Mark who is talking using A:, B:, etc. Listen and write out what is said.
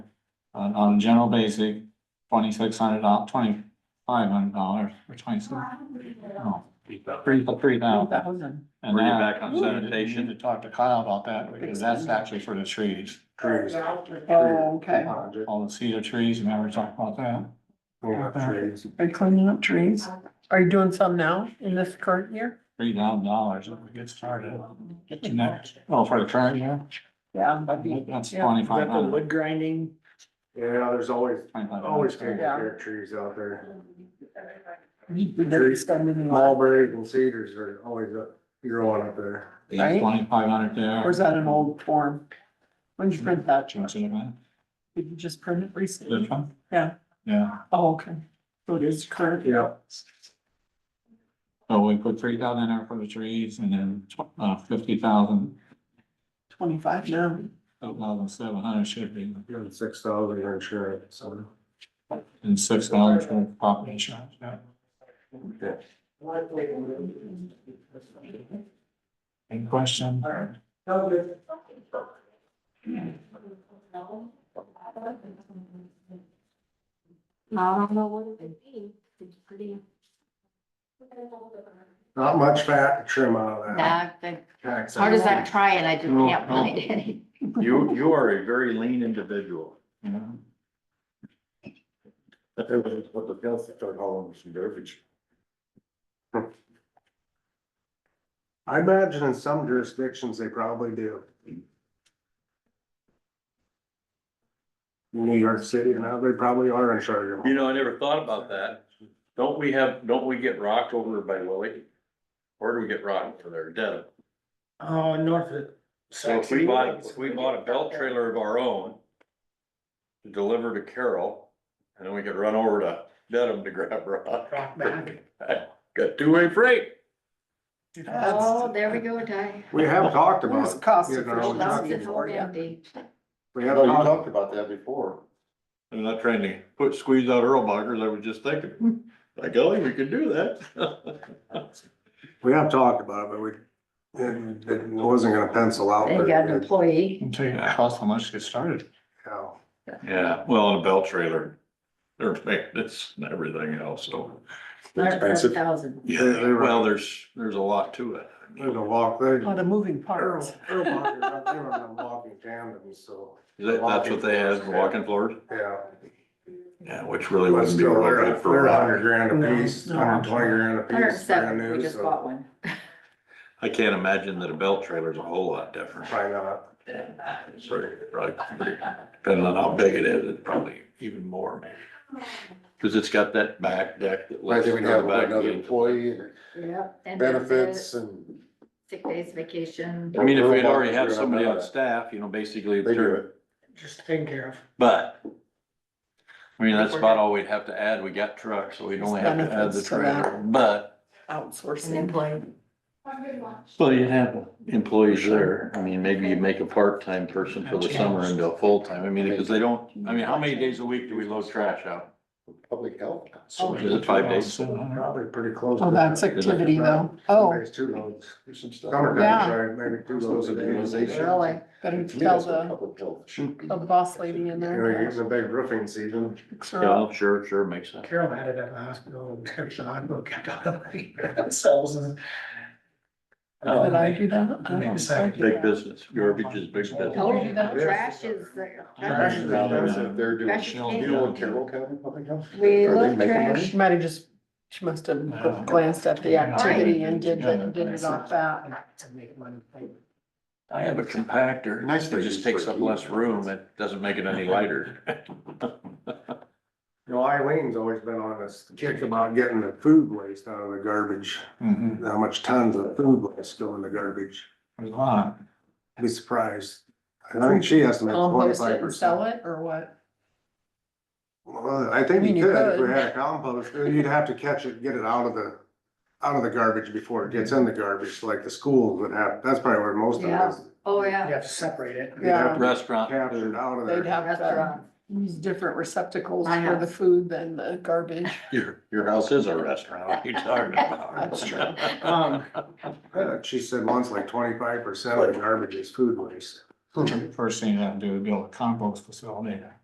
A: on, Uh, on general basic, twenty-six hundred, dollars, twenty-five hundred dollars, or twenty-six. No, three, three thousand.
B: thousand.
A: And
C: Bring it
A: now-
C: back on
A: Ooh,
C: sanitation.
A: you need To talk to Kyle about that, because that's actually for the trees,
D: Trees.
B: Oh, okay.
A: all the cedar trees, remember we talked about that?
D: Trees.
B: Are you cleaning up trees? Are you doing some now in this current year?
A: Three thousand dollars if we get started. Get to next, oh, for the current year,
B: Yeah.
A: that's
B: Yeah.
A: twenty-five hundred.
D: grinding? Yeah, there's always,
A: Oh,
D: always taking
B: Yeah.
D: care of trees out there.
B: They're spending a lot.
D: Mulberries and cedars are always up, growing up there.
B: right?
A: Twenty-five hundred there.
B: Or is that an old form? When did you print that? Did
A: Change it, man.
B: you just print it
A: This
B: recently?
A: one?
B: Yeah.
A: Yeah,
B: Oh, okay. So it is current.
D: Yeah.
A: so we put three thousand there for the trees and then tw- uh fifty thousand,
B: Twenty-five now.
A: thousand seven hundred should be.
D: And six thousand insurance, so.
A: And six dollars for property insurance, yeah. Any question?
E: I don't know what it would be, it's pretty.
D: Not much fat to trim out of that.
E: That, that,
D: Tax.
E: hard as I try and I just
D: No,
E: can't
D: no.
E: find any.
C: You, you are a very lean individual.
A: Yeah.
C: What the health start hauling some garbage.
D: I imagine in some jurisdictions, they probably do. New York City, now they probably are in charge of.
C: You know, I never thought about that. Don't we have, don't we get rocked over by Lily? Or do we get rocked for their dead?
F: Oh, north of.
C: So if we bought, if we bought a belt trailer of our own to deliver to Carroll, and then we could run over to Dedham to grab rock.
F: Rock back.
C: Got two-way freight.
E: Oh, there we go, Ty.
D: We have talked about.
B: It's cost
D: you know,
B: efficient.
E: Lost
D: talking-
E: it all
B: for you.
E: empty.
D: We have talked,
C: about that before. I'm not trying to put, squeeze out Earl Boggers, I was just thinking, hmm, like, oh, we could do that.
D: we have talked about it, but we, it, it wasn't gonna pencil out.
E: They
D: but
E: got an
D: it-
E: employee.
A: Until you cost how much to get started.
D: yeah.
C: Yeah, well, on a belt trailer, they're maintenance and everything else, so.
D: Expensive.
E: Thousand.
C: Yeah, well, there's, there's a lot to it.
D: There's a walk, they.
B: A lot of moving
D: Earl-
B: parts.
D: Earl Martin, they were on the Walking tandem, so,
C: That- That's what they had, walking floors,
D: yeah.
C: yeah, which really
D: But
C: wouldn't be
D: still,
C: real
D: they're,
C: good
D: they're
C: for
D: a
C: rock.
D: hundred grand
B: No,
D: a piece,
B: no.
D: hundred twenty grand a
E: Hundred
D: piece, brand
E: seven, we
D: new,
E: just bought
D: so
E: one.
C: I can't imagine that a belt trailer's a whole lot different.
D: probably not.
C: It's very- probably- Depending on how big it is, it's probably even more maybe. Cause it's got that back deck that lets. the back end.
E: Yep. and then the
D: benefits and.
E: Sick days, vacation.
C: I mean, if we'd already had somebody on staff, you know, basically,
D: They do it.
F: Just taken care of.
C: but. I mean, that's about all we'd have to add. We got trucks, so we'd only have to add the
B: Benefits to that.
C: trailer, but.
E: An
B: Outsourcing.
E: employee. Oh,
C: Well, you'd have employees there. I mean, maybe you make a part-time person for the summer into a full-time. I mean, because they don't, I mean, how many days a week do we load trash out?
D: Public health.
B: Oh.
C: Is it five days?
D: Probably pretty close.
B: Oh,
D: to
B: that's
D: that.
B: activity though. Oh,
D: There's two loads.
B: Yeah.
D: Summertime, right, maybe two loads a day.
E: Really?
B: better tell the, the boss lady in
D: And we're
B: there. uh,
D: getting a big roofing season.
B: Sure.
C: Yeah, sure, sure, makes sense.
F: Carol had it at the hospital, and there's a hospital, kept on the cells and.
C: Oh.
B: Did I do that? Um, I
F: Make a
B: don't-
F: second.
C: Big business, garbage is big business.
E: Told you that
D: Yeah.
E: trash is.
D: Trash is expensive.
G: They're doing,
E: Trash is
G: you
E: king.
G: know, in Carroll County Public Health?
E: We
G: Are they
E: love
G: making money?
E: trash.
B: She might have just, she must have glanced at the activity and did, it- did it off that.
F: To make money.
C: I have a compactor.
G: Nice
C: It just takes up less room. It doesn't make it any lighter.
D: You know, Eileen's always been on this kick about getting the food waste out of the garbage,
A: Mm-hmm,
D: how much tons of food waste go in the garbage.
A: there's a lot.
D: Be surprised. I think she estimates
B: Compost Um, it
D: twenty-five
B: and sell
D: percent.
B: it or what?
D: Well, I
B: I
D: think
B: mean,
D: you
B: you
D: could, if we
B: could.
D: had a compost, you'd have to catch it, get it out of the, out of the garbage before it gets in the garbage, like the schools would have, that's probably where most of it
E: Yeah.
D: is.
E: Oh,
F: You
E: yeah.
F: have to separate it.
D: You'd have to
C: Restaurant
D: Capture it
C: food.
D: out of
B: They'd
D: there.
B: have to
E: Restaurant.
B: use different receptacles
E: I
B: for
E: have.
B: the food than the garbage.
C: Your, your house is a restaurant. What are you talking about?
B: That's true.
F: Um,
D: Uh, She said once like twenty-five percent of the garbage is food waste.
A: First thing you have to do is build a compost facility.